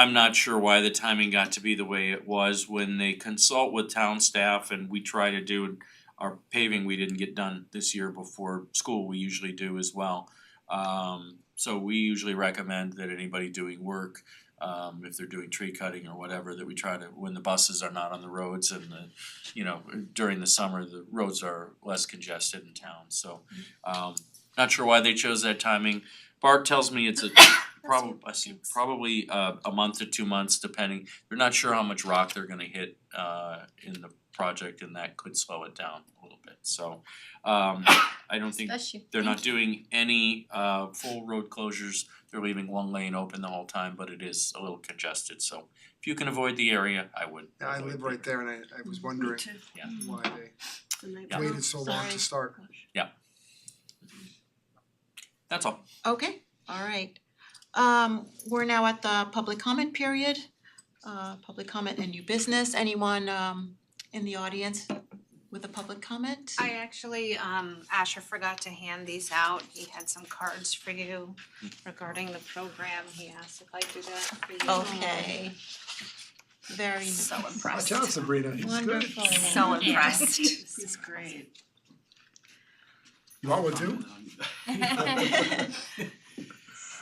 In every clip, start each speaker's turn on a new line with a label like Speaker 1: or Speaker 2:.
Speaker 1: I'm not sure why the timing got to be the way it was when they consult with town staff and we try to do our paving we didn't get done this year before school, we usually do as well. Um so we usually recommend that anybody doing work, um if they're doing tree cutting or whatever, that we try to, when the buses are not on the roads and the you know, during the summer, the roads are less congested in town, so um not sure why they chose that timing. Bart tells me it's a probably, I see, probably uh a month to two months depending, they're not sure how much rock they're gonna hit uh in the project and that could slow it down a little bit, so um I don't think
Speaker 2: Bless you.
Speaker 1: they're not doing any uh full road closures, they're leaving one lane open the whole time, but it is a little congested, so if you can avoid the area, I would.
Speaker 3: Yeah, I
Speaker 1: avoid
Speaker 3: live
Speaker 1: the
Speaker 3: right there and I I
Speaker 2: Mm,
Speaker 3: was wondering
Speaker 1: Yeah.
Speaker 3: why
Speaker 1: Yeah.
Speaker 3: they waited so long
Speaker 2: Sorry.
Speaker 3: to start.
Speaker 1: That's all.
Speaker 2: Okay, alright. Um we're now at the public comment period. Uh public comment and new business. Anyone um in the audience with a public comment?
Speaker 4: I actually, um, Asher forgot to hand these out, he had some cards for you regarding the program, he asked if I could do that for you.
Speaker 2: Okay. Very
Speaker 4: So
Speaker 3: Watch
Speaker 4: impressed,
Speaker 3: out Sabrina, it's good.
Speaker 2: wonderful.
Speaker 4: so impressed.
Speaker 5: It's great.
Speaker 3: You all would do?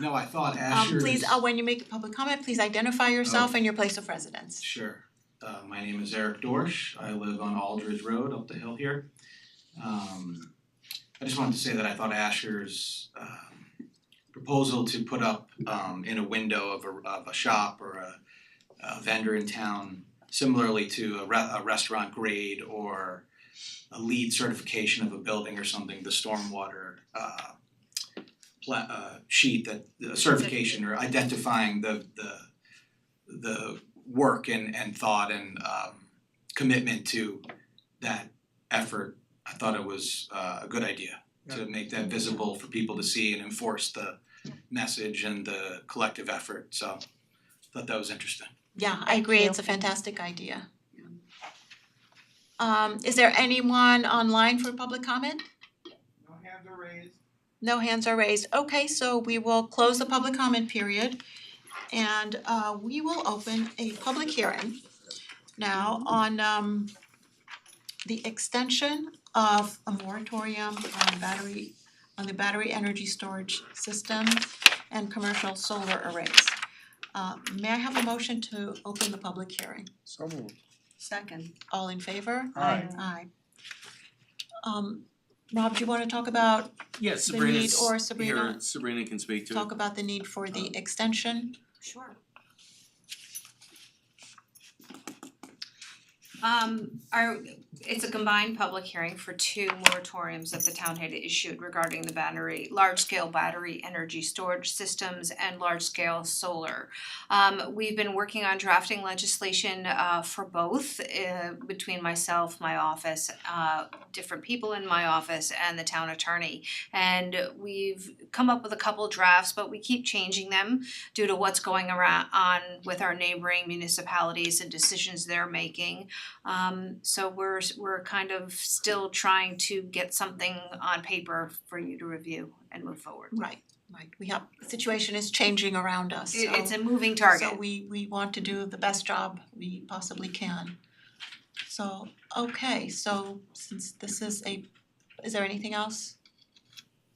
Speaker 5: No, I thought Asher's.
Speaker 2: Um please, uh when you make a public comment, please identify yourself and your place of residence.
Speaker 5: Sure. Uh, my name is Eric Dorsch. I live on Aldridge Road up the hill here. Um, I just wanted to say that I thought Asher's um, proposal to put up um, in a window of a, of a shop or a, a uh, vendor in town, similarly to a, re- a restaurant grade or a lead certification of a building or something, the stormwater uh, pla- uh, sheet that the certification or identifying the the the work and and thought and um commitment to that effort, I thought it was uh, a good idea to make that visible for people to see and enforce the message and the collective effort, so thought that was interesting.
Speaker 2: Yeah, I agree,
Speaker 4: you.
Speaker 2: it's a fantastic idea. Um is there anyone online for public comment?
Speaker 6: No hands are raised.
Speaker 2: No hands are raised. Okay, so we will close the public comment period and uh we will open a public hearing now on um the extension of a moratorium on battery on the battery energy storage system and commercial solar arrays. Uh may I have a motion to open the public hearing?
Speaker 3: So moved.
Speaker 2: Second. All in favor?
Speaker 3: Aye.
Speaker 2: Aye. Um Rob, do you wanna talk about,
Speaker 1: Yes,
Speaker 2: The need
Speaker 1: Sabrina's
Speaker 2: or Sabrina-
Speaker 1: here, Sabrina can speak to it.
Speaker 2: talk about the need for
Speaker 1: Um.
Speaker 2: the extension?
Speaker 4: Sure. Um, our, it's a combined public hearing for two moratoriums that the town had issued regarding the battery, large-scale battery energy storage systems and large-scale solar. Um, we've been working on drafting legislation uh for both, uh between myself, my office, uh different people in my office and the town attorney. And we've come up with a couple drafts, but we keep changing them due to what's going around on with our neighboring municipalities and decisions they're making. Um so we're we're kind of still trying to get something on paper for you to review and move forward.
Speaker 2: Right, right, we have, the situation is changing around us, so
Speaker 4: It- it's a moving target.
Speaker 2: so we we want to do the best job we possibly can. So, okay, so since this is a, is there anything else?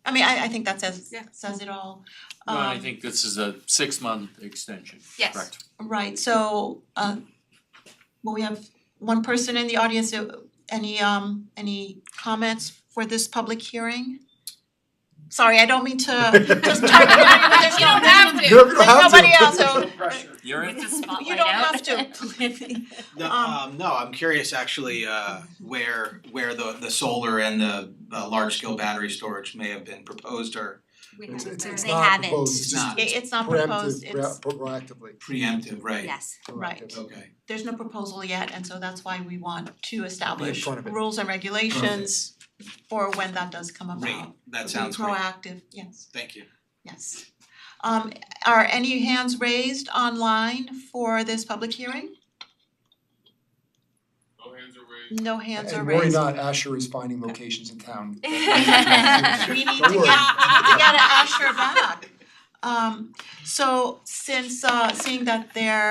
Speaker 2: I mean, I I think that says
Speaker 4: Yeah.
Speaker 2: says it all.
Speaker 1: No, I
Speaker 2: Um,
Speaker 1: think this is a six month extension,
Speaker 4: Yes.
Speaker 1: correct?
Speaker 2: Right, so uh well, we have one person in the audience, uh, any um any comments for this public hearing? Sorry, I don't mean to just target everybody, there's no
Speaker 3: You don't have to.
Speaker 2: nobody else, so
Speaker 5: pressure.
Speaker 1: You're in,
Speaker 2: you don't have to.
Speaker 5: No,
Speaker 2: Um,
Speaker 5: um no, I'm curious actually uh where where the the solar and the the large scale battery storage may have been proposed or
Speaker 4: We
Speaker 3: It's
Speaker 4: haven't
Speaker 3: it's
Speaker 4: done-
Speaker 3: it's
Speaker 7: They
Speaker 3: not
Speaker 7: haven't.
Speaker 3: proposed, it's
Speaker 5: It's
Speaker 3: just
Speaker 5: not.
Speaker 2: It- It's not proposed,
Speaker 3: preemptive,
Speaker 2: it's,
Speaker 3: ra- proactively,
Speaker 5: preemptive, right?
Speaker 7: Yes.
Speaker 2: Right.
Speaker 3: proactive.
Speaker 5: Okay,
Speaker 2: there's no proposal yet, and so that's why we want to establish
Speaker 3: front of it.
Speaker 2: rules and regulations for when that does come about.
Speaker 5: great, that sounds
Speaker 2: Be
Speaker 5: great,
Speaker 2: proactive, yes,
Speaker 5: thank you.
Speaker 2: yes. Um are any hands raised online for this public hearing?
Speaker 6: No hands are raised.
Speaker 2: No hands are
Speaker 3: And worry
Speaker 2: raised.
Speaker 3: not, Asher is finding locations in town.
Speaker 2: We need to
Speaker 3: Don't
Speaker 2: get, we need
Speaker 3: worry.
Speaker 2: to get Asher back. Um so since uh seeing that there